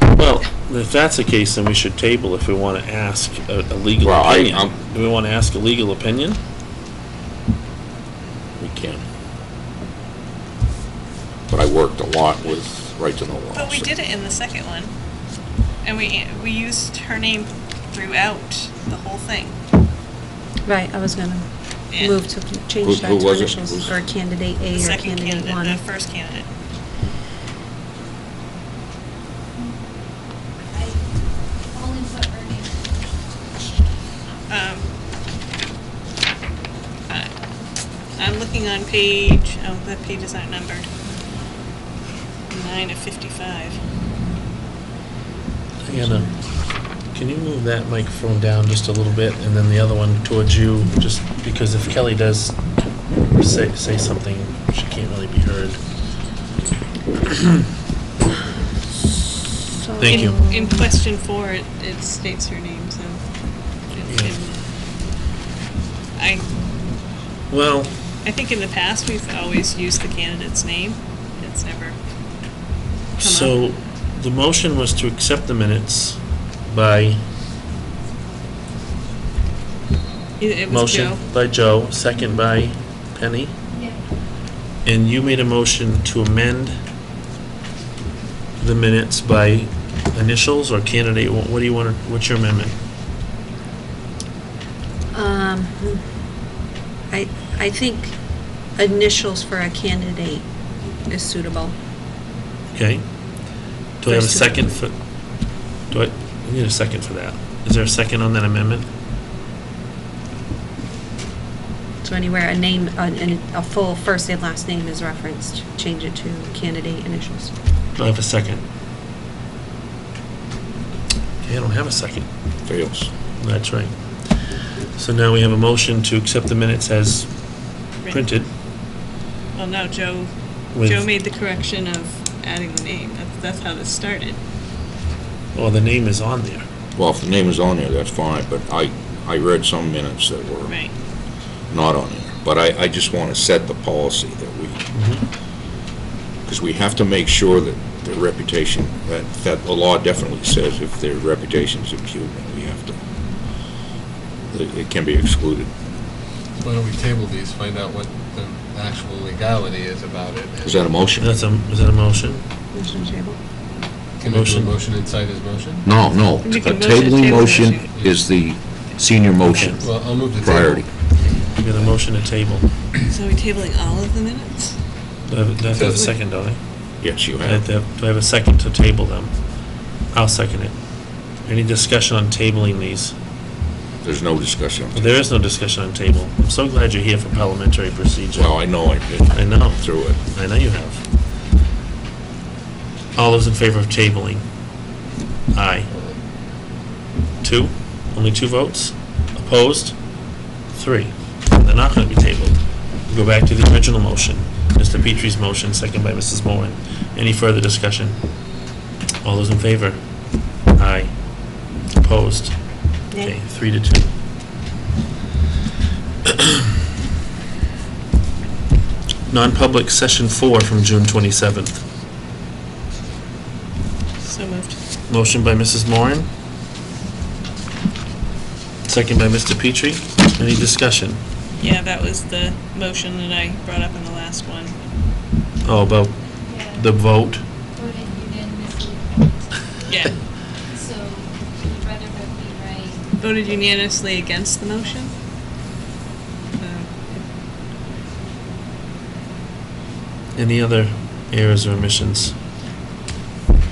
Well, if that's the case, then we should table if we want to ask a a legal Well, I- opinion. I'm- Do we want to ask a legal opinion? We can. But I worked a lot with right to know laws. But we did it in the second one. And we, we used her name throughout the whole thing. Right, I was gonna Yeah. move to Who- change that who to was it? initials, Who's- or candidate The A or second candidate candidate, uh, one. the first candidate. I only put her name. Um, I- I'm looking on page, oh, that page is not numbered. Nine of fifty-five. Anna, can you move that microphone down just a little bit, and then the other one towards you, just because if Kelly does say, say something, she can't really be heard. Thank you. In- In question four, it, it states her name, so. it- Yeah. it- I, Well, I think in the past, we've always used the candidate's name. It's never come so, up. the motion was to accept the minutes by It it was motion Joe. by Joe, second by Penny, Yeah. and you made a motion to amend the minutes by initials or candidate, what what do you want, to- what's your amendment? Um, I, I think initials for a candidate is suitable. Okay. Do I have a First two. second for, do I, we need a second for that. Is there a second on that amendment? So anywhere a name, a, an- a full first and last name is referenced, change it to candidate initials. Do I have a second? Okay, I don't have a second. Fails. That's right. So now we have a motion to accept the minutes as Right. printed. Well, no, Joe, With- Joe made the correction of adding the name. That's, that's how this started. Well, the name is on there. Well, if the name is on there, that's fine, but I, I read some minutes that were Right. not on there. But I, I just want to set the policy that we, Mm-hmm. because we have to make sure that their reputation, that, that the law definitely says if their reputation's impugnated, we have to, that it can be excluded. Why don't we table these, find out what the actual legality is about it? and Is that a motion? That's a, is that a motion? Motion to table. Can I do a motion? motion inside his motion? No, no. We A can motion- tabling table motion motion. is the senior motion. Well, I'll move to table. Priority. We got a motion to table. So are we tabling all of the minutes? Do I have do I have to have a second, don't I? Yes, you Do I have have. to have- do I have a second to table them? I'll second it. Any discussion on tabling these? There's no discussion. on that. There is no discussion on table. I'm so glad you're here for parliamentary procedure. Well, I know I did. I know. Through it. I know you have. All those in favor of tabling? Aye. Two? Only two votes? Opposed? Three. They're not going to be tabled. We Go back to the original motion, Mr. Petrie's motion, second by Mrs. Moran. Any further discussion? All those in favor? Aye. Opposed? Nay. Okay, three to two. Non-public session four from June 27th. So moved. Motion by Mrs. Moran. Second by Mr. Petrie. Any discussion? Yeah, that was the motion that I brought up in the last one. Oh, about Yeah. the vote? Voted unanimously, Yeah. so you'd rather vote me right. Voted unanimously against the motion? Um, Any other errors or omissions?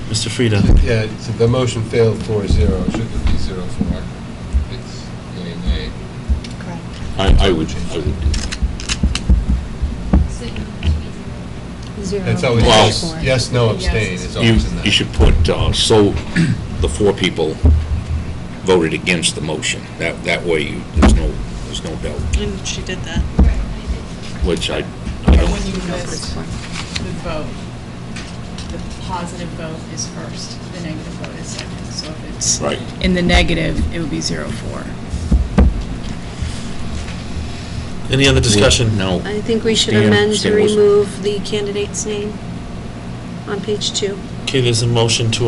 Mr. Frida? Yeah, so the motion failed four zero, shouldn't be zero four. It's yea, nay. I, I would, I would do that. So you need to be zero. Zero. That's always, Well- four. yes, no, abstain is You, always in that. you should put, uh, so the four people voted against the motion. That, that way you, there's no, there's no doubt, And she did that. Right, I did. which I, I When don't, you Zero for miss four. the vote, the positive vote is first, the negative vote is second. So if it's right. in the negative, it would be zero four. Any other discussion? No. I think we should Stan- amend to Stan was- remove the candidate's name on page two. Okay, there's a motion to